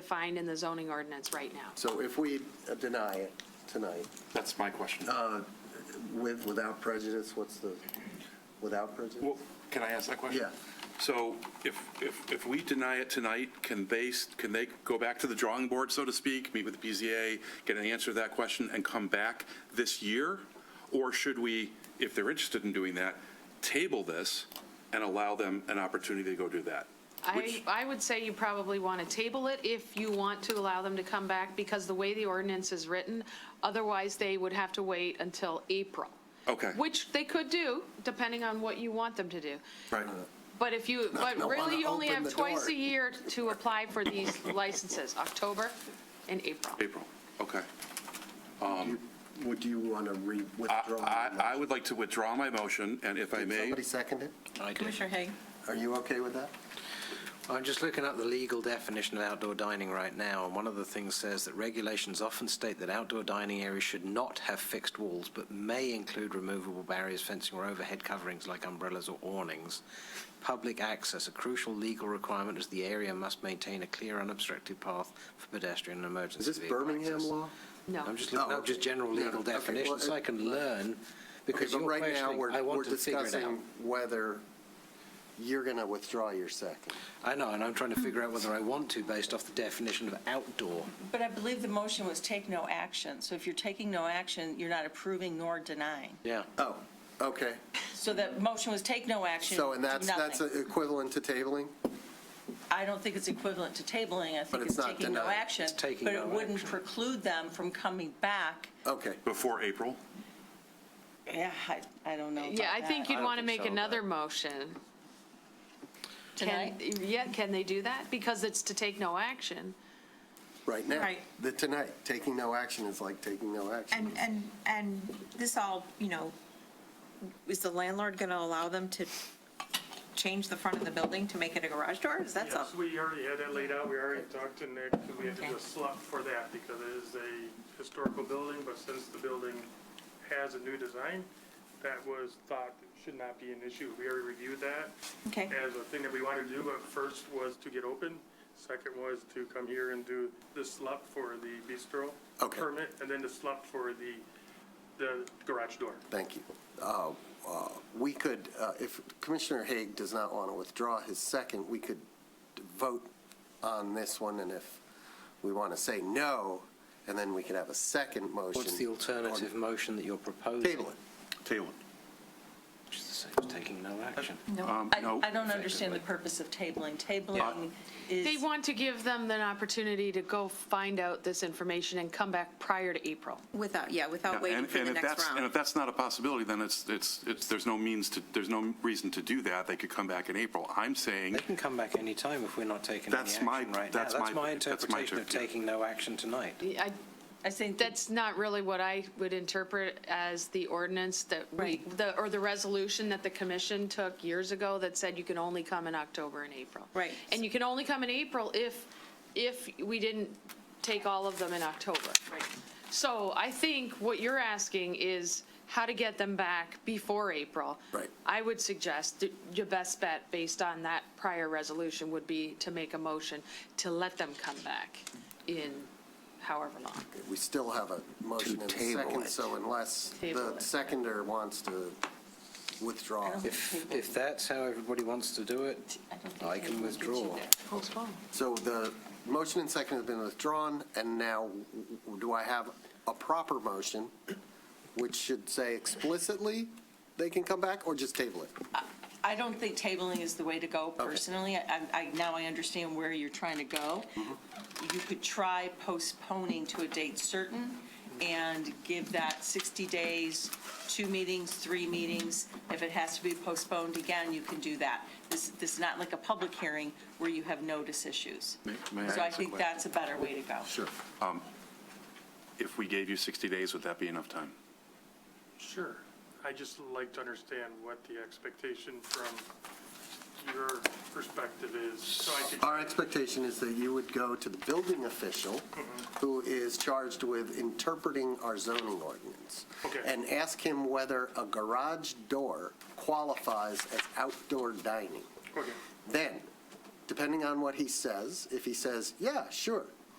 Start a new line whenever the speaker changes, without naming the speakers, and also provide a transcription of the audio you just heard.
defined in the zoning ordinance right now.
So if we uh, deny it tonight,
That's my question.
uh, with, without prejudice, what's the, without prejudice?
Well, Can I ask that question?
Yeah.
So if, if, if we deny it tonight, can they, s- can they go back to the drawing board, so to speak, meet with the BZA, get an answer to that question, and come back this year? Or should we, if they're interested in doing that, table this and allow them an opportunity to go do that?
I,
Which-
I would say you probably want to table it if you want to allow them to come back, because the way the ordinance is written, otherwise they would have to wait until April.
Okay.
Which they could do, depending on what you want them to do.
Uh,
Right.
But if you, but
gonna wanna
really, you only
open
have
the
twice
door.
a year to apply for these licenses, October and April.
April, okay.
Would you want to re,
I,
withdraw?
I, I would like to withdraw my motion, and if I
Did
may,
somebody second it?
Commissioner Haig.
Are you okay with that?
I'm just looking up the legal definition of outdoor dining right now, and one of the things says that regulations often state that outdoor dining areas should not have fixed walls, but may include removable barriers, fencing, or overhead coverings like umbrellas or awnings. Public access, a crucial legal requirement is the area must maintain a clear unobstructed path for pedestrian and emergency
Is this
vehicle
Birmingham
access.
law?
No.
I'm just looking
Oh,
up just general
yeah,
legal
okay, well,
definitions, so I can learn,
Okay,
because
but
you're
right now,
questioning, I
we're, we're
want to figure it out.
discussing whether you're going to withdraw your second.
I know, and I'm trying to figure out whether I want to based off the definition of outdoor.
But I believe the motion was take no action. So if you're taking no action, you're not approving nor denying.
Yeah.
Oh, okay.
So that motion was take no action,
So, and
do
that's, that's
nothing.
equivalent to tabling?
I don't think it's equivalent to tabling. I
But
think
it's
it's
not
taking no
denying.
action.
It's taking
But it
no
wouldn't
action.
preclude them from coming back.
Okay.
before April?
Yeah, I, I don't know about
Yeah, I think
I
that.
you'd
don't
want to
think
make
so, but-
another motion. Can-
Tonight?
Yeah, can they do that? Because it's to take no action.
Right now.
Right.
The tonight, taking no action is like taking no action.
And, and, and this all, you know, is the landlord going to allow them to change the front of the building to make it a garage door? Is that
Yes,
something?
we already had that laid out, we already talked to Nick, and we had to do
Okay.
a slot for that, because it is a historical building, but since the building has a new design, that was thought should not be an issue, we already reviewed that
Okay,
as a thing that we wanted to do, but first was to get open, second was to come here and do the slot for the bistro
Okay.
permit, and then the slot for the, the garage door.
Thank you. Uh, uh, We could, uh, if Commissioner Haig does not want to withdraw his second, we could vote on this one, and if we want to say no, and then we could have a second motion.
What's the alternative motion that you're proposing?
Table it.
Table.
Which is the same as taking no action.
Um,
I,
no.
I don't understand the purpose of tabling. Tabling
They
is,
want to give them an opportunity to go find out this information and come back prior to April.
without, yeah, without waiting
And-
for
and
the
if
next
that's- And if
round.
that's not a possibility, then it's, it's, it's, there's no means to, there's no reason to do that. They could come back in April. I'm saying,
They can come back any time if we're not taking any
That's
action
my-
right now.
that's my-
That's my
that's my
interpretation of
tip, yeah.
taking no action tonight.
I,
I think.
that's not really what I would interpret as the ordinance that we,
Right.
the, or the resolution that the commission took years ago that said you can only come in October and April.
Right.
And you can only come in April if, if we didn't take all of them in October.
Right.
So I think what you're asking is how to get them back before April.
Right.
I would suggest that your best bet, based on that prior resolution, would be to make a motion to let them come back in however long.
We still have a motion and a
table
second,
it.
so unless
Table
the
it.
seconder wants to withdraw.
If, if that's how everybody wants to do it,
I don't think
I can
tabling gets you
withdraw.
there.
Postpone.
So the motion and second have been withdrawn, and now do I have a proper motion, which should say explicitly they can come back, or just table it?
I don't think tabling is the way to go
Okay.
personally. I, I, now I understand where you're trying to go.
Mm-hmm.
You could try postponing to a date certain and give that 60 days, two meetings, three meetings. If it has to be postponed again, you can do that. This, this is not like a public hearing where you have notice issues.
May- may I
So I
ask a
think
question?
that's a better way to go.
Sure.
if we gave you 60 days, would that be enough time?
Sure. I just like to understand what the expectation from your perspective is, so I could.
Our expectation is that you would go to the building official, who is charged with interpreting our zoning ordinance.
Okay.
And ask him whether a garage door qualifies as outdoor dining.
Okay,
Then, depending on what he says, if he says, yeah, sure,